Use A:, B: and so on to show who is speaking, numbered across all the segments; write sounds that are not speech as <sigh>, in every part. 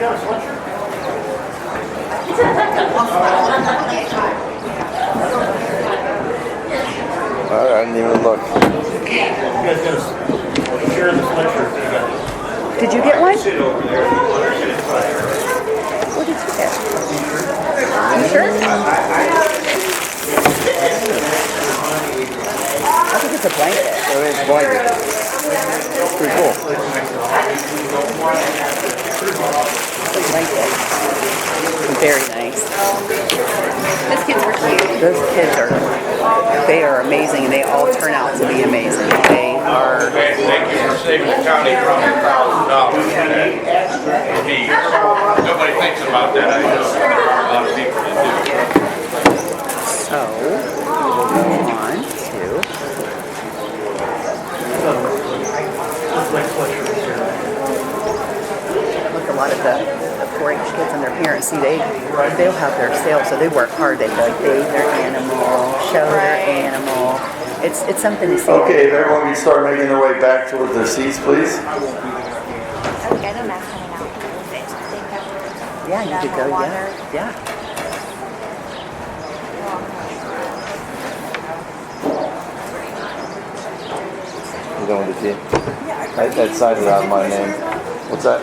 A: got a sweatshirt?
B: I didn't even look.
A: You guys got a s- share in the sweatshirt? that you got?
C: Did you get one? What did you get? You sure? I think it's a blanket.
B: I mean, it's blanket. It's Pretty cool.
C: It's a blanket. Very nice.
D: Those kids were cute.
C: Those kids are, they are amazing. and They all turn out to be amazing. They are,
E: Thank thank you for saving the county from a thousand dollars for that. Gee, Nobody thinks about that, I know. There are a lot of people that do.
C: so, move on to,
A: My sweatshirt is here.
C: look, a lot of the the 4-H kids and their parents, see, they, they'll have their sales, so they work hard. They like bathe their animal, show their animal. It's, it's something to see.
B: Okay, if everyone can start making their way back towards their seats, please.
D: Okay, the mask coming out. They
C: Yeah,
D: have
C: you could go,
D: water.
C: yeah, yeah.
B: You don't want the key. I, that sign is out of my name. What's that?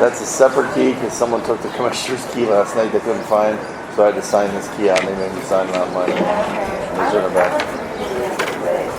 B: That's a separate key because someone took the <laughs> commissioner's key last night they couldn't find. So I had to sign this key out and they made me sign it out of my name. Those are in the back.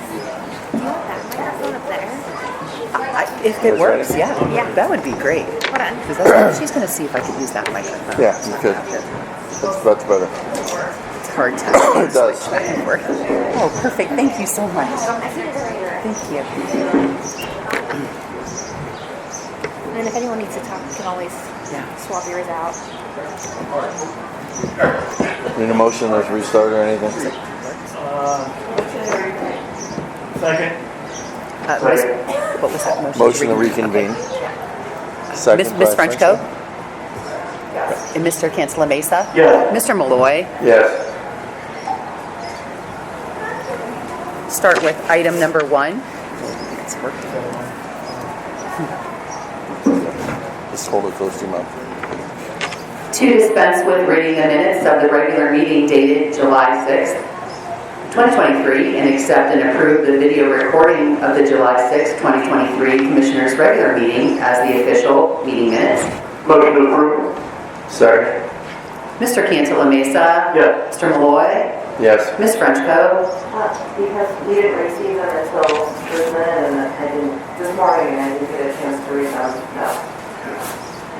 D: That microphone up there.
C: I- If it
B: Is that
C: works,
B: it?
C: yeah.
D: Yeah.
C: That would be great.
D: Hold on.
C: Because
B: <coughs>
C: that's, she's gonna see if I could use that microphone.
B: Yeah, you could. That's, that's better.
C: It's hard to <coughs>
B: It does.
C: switch back and forth. Oh, perfect, thank you so much.
D: Um,
C: Thank you.
D: And then if anyone needs to talk, you can always
C: Yeah.
D: swap yours out.
B: Need a motion or restart or anything?
A: Second?
C: Uh, what was- What was that motion?
B: Motion to reconvene.
C: Miss
B: Second.
C: Miss
B: by
C: Frenchco? And Mr. Cancela Mesa?
A: Yeah.
C: Mr. Malloy,
B: Yes.
C: start with item number one. It's worked.
B: Just hold it close to your mouth.
F: To dispense with reading the minutes of the regular meeting dated July 6, 2023, and accept and approve the video recording of the July 6, 2023 Commissioners' Regular Meeting as the official meeting minutes.
A: Motion to approve?
B: Second.
F: Mr. Cantala Mesa.
A: Yes.
F: Mr. Malloy.
B: Yes.
F: Ms. Frenchco.
G: Uh, Because we didn't receive them until this minute, and I didn't, this morning, and I didn't get a chance to read them, no.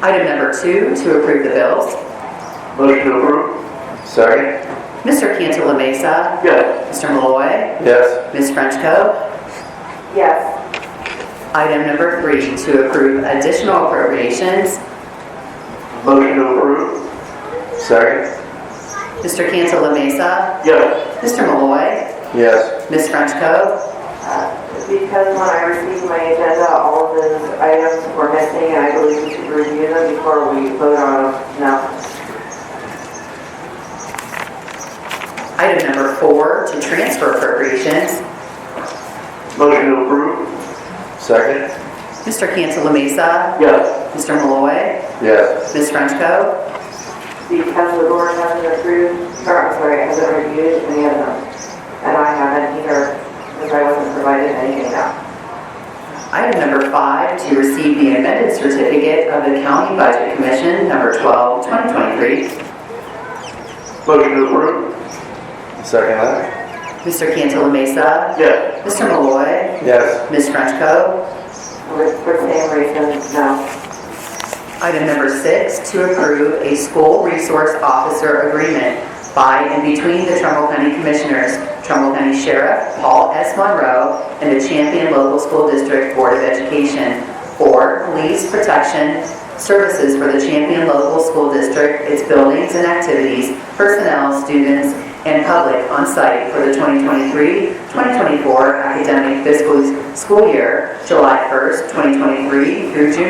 F: Item number two, to approve the bills.
B: Motion to approve. Second.
F: Mr. Cantala Mesa.
B: Yes.
F: Mr. Malloy.
B: Yes.
F: Ms. Frenchco.
G: Yes,
F: Item number three, to approve additional appropriations.
B: Motion to approve. Second.
F: Mr. Cantala Mesa.
B: Yes.
F: Mr. Malloy.
B: Yes.
F: Ms. Frenchco.
G: uh, because when I received my agenda, all of those items were missing, and I believe we should review them before we vote on them now.
F: Item number four, to transfer appropriations.
B: Motion to approve. Second.
F: Mr. Cantala Mesa.
B: Yes.
F: Mr. Malloy.
B: Yes.
F: Ms. Frenchco.
G: Because the board hasn't approved, or I'm sorry, hasn't reviewed any of them. And I haven't either, because I wasn't provided anything now.
F: Item number five, to receive the amended certificate of the County Budget Commission, number 12, 2023.
B: Motion to approve. Second that?
F: Mr. Cantala Mesa.
B: Yes.
F: Mr. Malloy.
B: Yes.
F: Ms. Frenchco.
G: For for same reasons, no.
F: Item number six, to approve a school resource officer agreement by and between the Trumbull County Commissioners, Trumbull County Sheriff Paul S. Monroe, and the Champion Local School District Board of Education for police protection services for the Champion Local School District, its buildings and activities, personnel, students, and public on site for the 2023-2024 academic fiscal school year, July 1st, 2023 through June